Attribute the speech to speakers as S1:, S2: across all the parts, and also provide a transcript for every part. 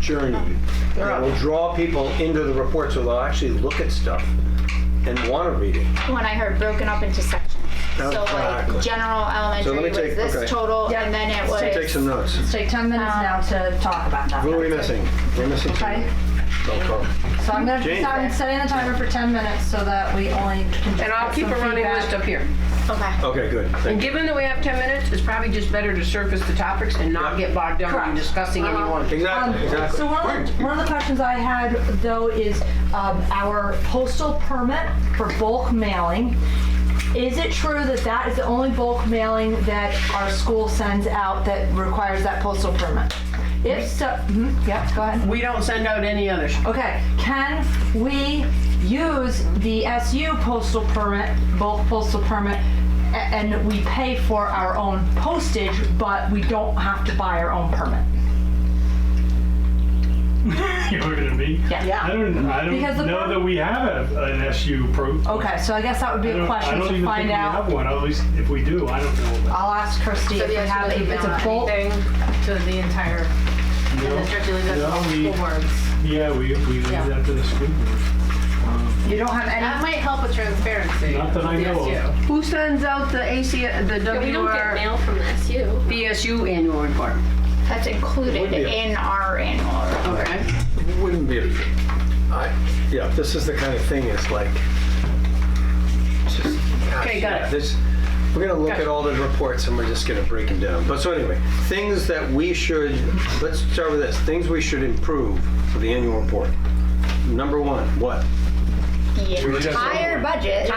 S1: journey that will draw people into the report so they'll actually look at stuff and want to read it.
S2: when I heard broken up into sections. So
S1: Exactly.
S2: like general
S1: So
S2: elementary
S1: let me
S2: was
S1: take- okay.
S2: this total
S3: Yeah.
S2: and then it
S3: So
S1: Take
S2: was,
S1: some notes.
S3: Let's take 10 minutes
S2: Um,
S3: now to talk about that.
S1: Who are we missing? We're missing
S3: Okay.
S1: somebody.
S3: So I'm going to
S1: Jane.
S3: start setting the timer for 10 minutes so that we only can
S4: And I'll
S3: get
S4: keep
S3: some
S4: a running
S3: feedback.
S4: list up here.
S2: okay.
S1: Okay, good.
S4: And
S1: Thank you.
S4: given that we have 10 minutes, it's probably just better to surface the topics and not get bogged down in
S3: Correct.
S4: discussing any one.
S3: Um,
S1: Exactly, exactly.
S3: So one of, the, one of the questions I had though is um, our postal permit for bulk mailing. Is it true that that is the only bulk mailing that our school sends out that requires that postal permit? If so, mhm, yep, go ahead.
S4: We don't send out any others.
S3: Okay, can we use the SU postal permit, bulk postal permit, a- and we pay for our own postage, but we don't have to buy our own permit?
S5: You're looking at me?
S3: Yeah.
S5: I don't, I
S3: Because the
S5: don't know
S3: pro-
S5: that we have a- an SU pro.
S3: Okay, so I guess that would be
S5: I
S3: a
S5: don't-
S3: question
S5: I don't
S3: to
S5: even
S3: find
S5: think we
S3: out. Uh,
S5: have one, at least if we do, I don't know. about
S3: I'll ask Christie if we have, if it's a bulk.
S6: to the entire,
S5: it. No, no, we- Yeah, we, we leave
S6: Yeah.
S5: that to the school board.
S4: You don't have
S6: That might help with transparency.
S5: Not that I know of.
S6: Yes,
S4: Who sends out the AC, the
S6: you. We don't get
S4: WR,
S6: mail from the SU.
S4: BSU annual report?
S2: That's included
S1: Would be.
S2: in our annual report.
S4: Okay.
S1: Wouldn't be, I, yeah, this is the kind of thing, it's like, it's just, gosh,
S4: Okay, got
S1: yeah,
S4: it.
S1: this- We're gonna look at all the reports and we're just gonna break them down. But so anyway, things that we should, let's start with this, things we should improve for the annual report. Number one, what? Um, were
S2: The
S1: just-
S2: entire budget.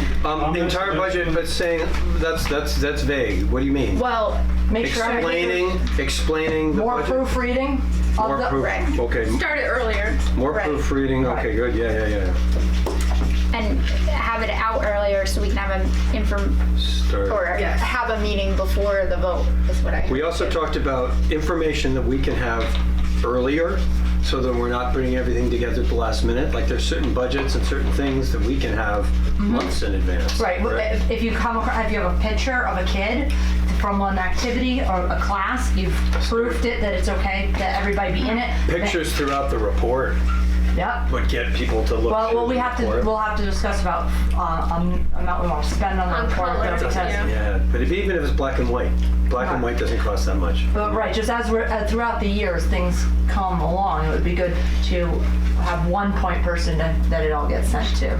S1: Um, the entire budget, but saying, that's, that's, that's vague, what do you mean?
S2: Well,
S3: Make sure everything
S1: Explaining, explaining the
S3: more
S1: budget.
S3: proofreading of
S1: More
S3: the.
S1: proof, okay,
S6: Started earlier.
S1: more
S2: Right.
S1: proofreading, okay, good, yeah, yeah, yeah.
S2: and have it out earlier so we can have an inform,
S1: Start.
S2: or
S6: Yes.
S2: have a meeting before the vote is what I.
S1: We also talked about information that we can have earlier, so that we're not putting everything together at the last minute. Like there's certain budgets and certain things that we can have months in advance.
S3: Mm-hmm. Right, well, eh, if- if you come across, if you have a picture of a kid from an activity or a class, you've proofed it that it's okay that everybody be in it.
S1: Pictures throughout the report
S3: Yep.
S1: would get people to look.
S3: Well,
S1: through
S3: well, we
S1: the
S3: have to,
S1: report.
S3: we'll have to discuss about, uh, um, amount we want to spend on
S6: On
S3: the report though,
S6: colors,
S3: because
S6: yeah.
S1: Yeah, but if- even if it's black and white, black and
S3: Right.
S1: white doesn't cost that much.
S3: But right, just as we're uh, throughout the years, things come along. It would be good to have one point person that, that it all gets sent to.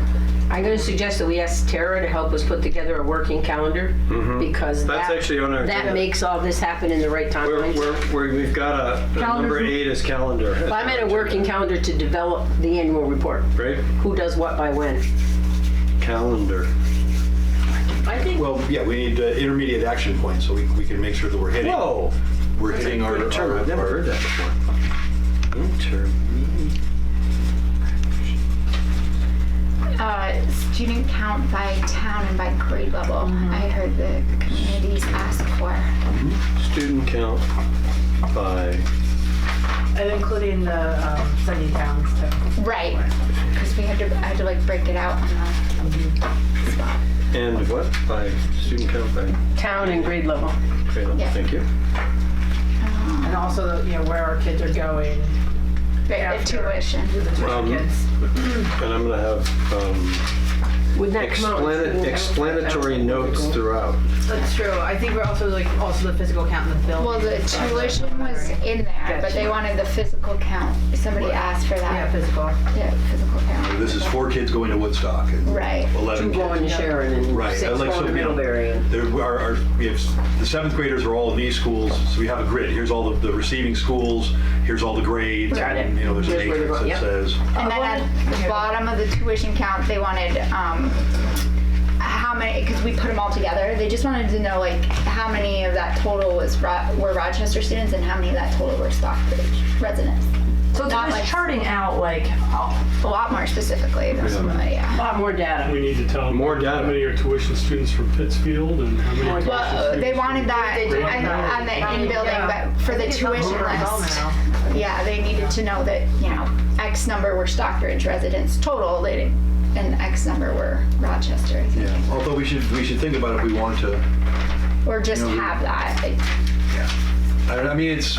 S4: I'm gonna suggest that we ask Tara to help us put together a working calendar, because
S1: Mm-hmm. That's
S4: that,
S1: actually on our
S4: that
S1: agenda.
S4: makes all this happen in the right
S1: We're,
S4: timelines.
S1: we're, we're- we've got a, a number
S3: Calendar's-
S1: eight is calendar.
S4: But I'm at a working calendar to develop the annual report,
S1: Right,
S4: who does what by when.
S1: calendar.
S4: I think
S7: Well, yeah, we need uh, intermediate action points so we, we can make sure that we're hitting.
S1: Whoa.
S7: We're
S1: That's a
S7: hitting our.
S1: good term.
S7: our-
S1: I've never
S7: our-
S1: heard that before. Intermediate.
S2: Uh, student count by town and by grade level, I heard the communities ask for.
S1: Student count by,
S8: And including the um, sending towns too.
S2: Right, because we had to, I had to like break it out on the spot.
S1: and what? By student count by
S4: town and grade level.
S1: grade level.
S2: Yeah.
S1: Thank you.
S8: And also, you know, where our kids are going.
S2: The tuition.
S8: The tuition
S1: Um,
S8: kids.
S1: And I'm gonna have um,
S4: Would that come out?
S1: explana- explanatory notes throughout.
S8: That's true. I think we're also like, also the physical count in the building.
S2: Well, the tuition was in there, but they wanted the physical count. Somebody asked for
S8: Yeah,
S2: that.
S8: physical.
S2: Yeah, physical count.
S7: This is four kids going to Woodstock and
S2: Right.
S7: eleven
S4: Two going to
S7: kids.
S4: Sharon and
S7: Right,
S4: six
S7: I'd
S4: going
S7: like
S4: to
S7: some, you know-
S4: Middlebury. and-
S7: There, we- our, our, we have, s- the seventh graders are all in these schools, so we have a grid. Here's all the, the receiving schools, here's all the grades.
S4: Got
S7: and,
S4: it.
S7: You know, there's a
S4: Here's where
S7: matrix
S4: they're
S7: that
S4: going,
S7: says,
S2: And then at the bottom of the tuition count, they wanted, um, how many, because we put them all together, they just wanted to know like how many of that total was, Ro- were Rochester students and how many of that total were Stockbridge residents.
S3: So it's
S2: Not
S3: just
S2: like-
S3: charting out like, oh,
S2: A lot more specifically, than some of the- yeah.
S4: A lot more data.
S5: We need to tell.
S1: More
S5: How
S1: data.
S5: many are tuition students from Pittsfield and how many? tuition
S2: Well, uh, they
S5: students
S2: wanted that
S8: They do
S2: on-
S8: now.
S2: on the in-building,
S8: Yeah.
S2: but for the tuition list, yeah, they needed to know that, you know, X number were Stockbridge residents total, they didn't, and X number were Rochester, I think.
S7: yeah, although we should, we should think about if we want to,
S2: or just
S7: Yeah, we-
S2: have that. like,
S7: I, I mean, it's,